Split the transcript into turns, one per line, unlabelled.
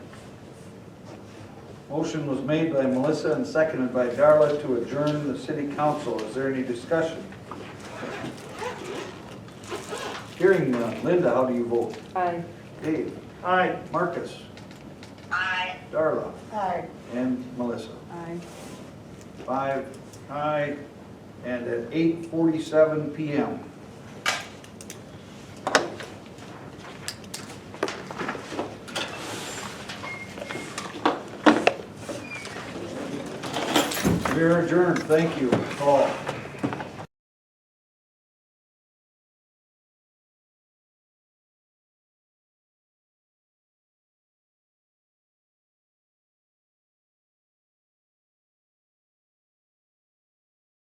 Motion was made by Melissa and seconded by Darla to adjourn the city council. Is there any discussion? Hearing none. Linda, how do you vote?
Aye.
Dave?
Aye.
Marcus?
Aye.
Darla?
Aye.
And Melissa?
Aye.
Five aye, and at eight forty-seven PM. We are adjourned, thank you all.